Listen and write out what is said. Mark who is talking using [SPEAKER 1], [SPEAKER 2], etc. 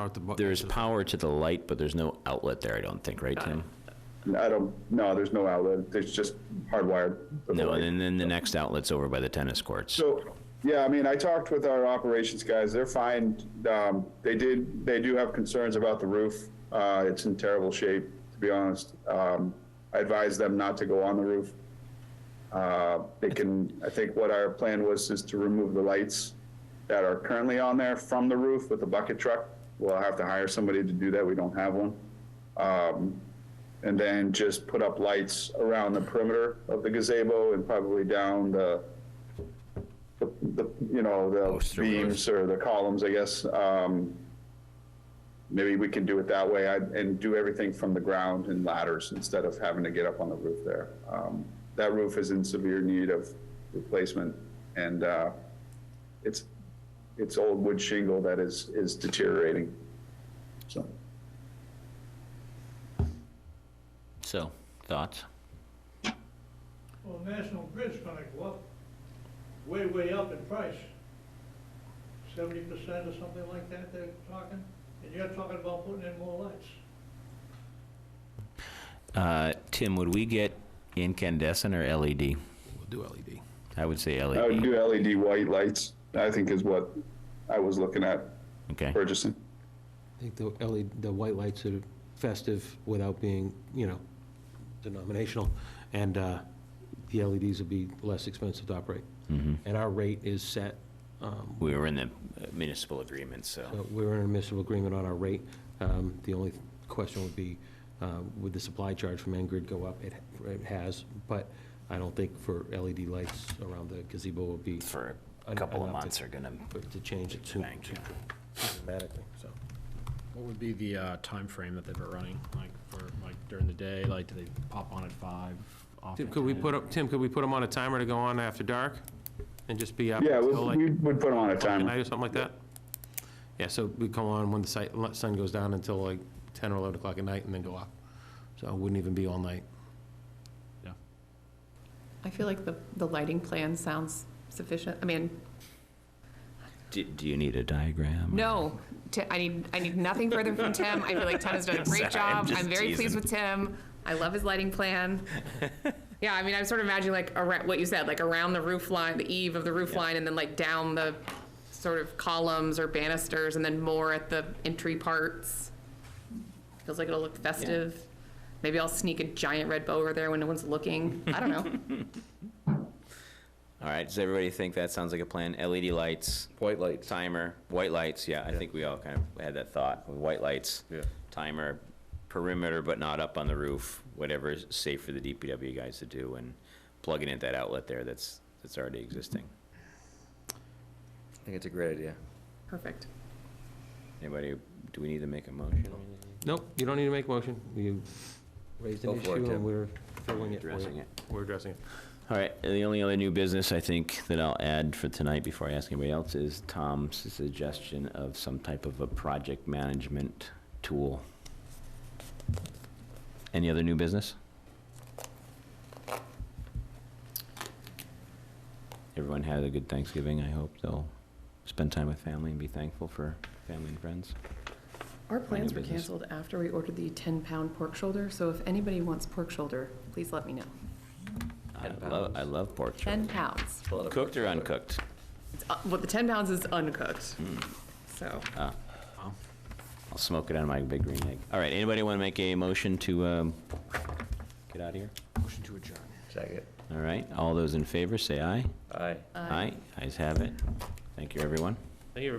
[SPEAKER 1] Out the bu-
[SPEAKER 2] There's power to the light, but there's no outlet there, I don't think, right, Tim?
[SPEAKER 3] I don't, no, there's no outlet, it's just hardwired.
[SPEAKER 2] No, and then- then the next outlet's over by the tennis courts.
[SPEAKER 3] So, yeah, I mean, I talked with our operations guys, they're fine, um, they did, they do have concerns about the roof. Uh, it's in terrible shape, to be honest, um, I advise them not to go on the roof. Uh, they can, I think what our plan was is to remove the lights that are currently on there from the roof with the bucket truck. We'll have to hire somebody to do that, we don't have one. Um, and then just put up lights around the perimeter of the gazebo and probably down the, the, the, you know, the
[SPEAKER 2] Poster rows.
[SPEAKER 3] beams or the columns, I guess. Um, Maybe we can do it that way I'd- and do everything from the ground and ladders instead of having to get up on the roof there. Um, That roof is in severe need of replacement and uh, it's, it's old wood shingle that is, is deteriorating. So,
[SPEAKER 2] So, thoughts?
[SPEAKER 4] Well, National Grid's gonna go up, way, way up in price. Seventy percent or something like that they're talking, and you're talking about putting in more lights.
[SPEAKER 2] Uh, Tim, would we get incandescent or LED?
[SPEAKER 1] We'll do E LED.
[SPEAKER 2] I would say E
[SPEAKER 3] I would
[SPEAKER 2] LED.
[SPEAKER 3] do LED white lights, I think is what I was looking at
[SPEAKER 2] Okay,
[SPEAKER 3] purchasing.
[SPEAKER 5] I think the LED, the white lights are festive without being, you know, denominational, and uh, the LEDs would be less expensive to operate. And our rate is set, um,
[SPEAKER 2] we were in the municipal agreement, so.
[SPEAKER 5] so we're in a municipal agreement on our rate. Um, The only question would be, uh, would the supply charge from Engrid go up? It it has, but I don't think for LED lights around the gazebo would be
[SPEAKER 2] For
[SPEAKER 5] a couple of months
[SPEAKER 2] are gonna.
[SPEAKER 5] to change it too
[SPEAKER 2] Thank you.
[SPEAKER 5] dramatically, so.
[SPEAKER 6] What would be the uh, timeframe that they've been running, like, for, like, during the day, like, do they pop on at five, off
[SPEAKER 5] Tim,
[SPEAKER 6] at
[SPEAKER 5] could we
[SPEAKER 6] 10?
[SPEAKER 5] put, up- Tim, could we put them on a timer to go on after dark and just be up
[SPEAKER 3] Yeah, we
[SPEAKER 5] until like
[SPEAKER 3] we would put them on a
[SPEAKER 5] at
[SPEAKER 3] timer.
[SPEAKER 5] night or something like that? Yeah, so we come on when the si- let- sun goes down until like 10 or 11 o'clock at night and then go off. So it wouldn't even be all night.
[SPEAKER 7] I feel like the, the lighting plan sounds sufficient. I mean,
[SPEAKER 2] Do, do you need a diagram?
[SPEAKER 7] no, Ti- I need, I need nothing further from Tim. I feel like Tim has done a
[SPEAKER 2] Sorry,
[SPEAKER 7] great
[SPEAKER 2] I'm
[SPEAKER 7] job.
[SPEAKER 2] just
[SPEAKER 7] I'm very pleased
[SPEAKER 2] teasing.
[SPEAKER 7] with Tim. I love his lighting plan. Yeah, I mean, I'm sort of imagining like around, what you said, like around the roof line, the eave of the roof line, and then like down the sort of columns or banisters, and then more at the entry parts. Feels like it'll look festive. Maybe I'll sneak a giant red bow over there when no one's looking. I don't know.
[SPEAKER 2] All right, does everybody think that sounds like a plan? LED lights? White lights. Timer, white lights, yeah, I think we all kind of had that thought, white lights.
[SPEAKER 1] Yeah.
[SPEAKER 2] Timer, perimeter but not up on the roof, whatever is safe for the DPW guys to do, and plugging in that outlet there that's, that's already existing.
[SPEAKER 8] I think it's a great idea.
[SPEAKER 7] Perfect.
[SPEAKER 2] Anybody, do we need to make a motion?
[SPEAKER 5] Nope, you don't need to make a motion. You raised
[SPEAKER 8] Go
[SPEAKER 5] an
[SPEAKER 8] for it,
[SPEAKER 5] issue and
[SPEAKER 8] Tim.
[SPEAKER 5] we're filling it for
[SPEAKER 2] Addressing
[SPEAKER 5] you.
[SPEAKER 2] it.
[SPEAKER 5] We're addressing it.
[SPEAKER 2] All right, and the only other new business I think that I'll add for tonight before I ask anybody else is Tom's suggestion of some type of a project management tool. Any other new business? Everyone had a good Thanksgiving, I hope they'll spend time with family and be thankful for family and friends.
[SPEAKER 7] Our plans were
[SPEAKER 2] business.
[SPEAKER 7] canceled after we ordered the 10-pound pork shoulder, so if anybody wants pork shoulder, please let me know.
[SPEAKER 2] I
[SPEAKER 8] And
[SPEAKER 2] love,
[SPEAKER 8] pounds.
[SPEAKER 2] I love pork shoulder.
[SPEAKER 7] 10 pounds.
[SPEAKER 8] Pull out a-
[SPEAKER 2] Cooked or uncooked?
[SPEAKER 7] It's, uh, Well, the 10 pounds is uncooked,
[SPEAKER 2] Hmm.
[SPEAKER 7] so. uh,
[SPEAKER 2] I'll smoke it out of my big green egg. All right, anybody want to make a motion to um, get out of here?
[SPEAKER 6] Motion to adjourn.
[SPEAKER 8] Second.
[SPEAKER 2] All right, all those in favor, say aye.
[SPEAKER 8] Aye.
[SPEAKER 2] Ayes have it. Thank you, everyone.
[SPEAKER 5] Thank you, everybody.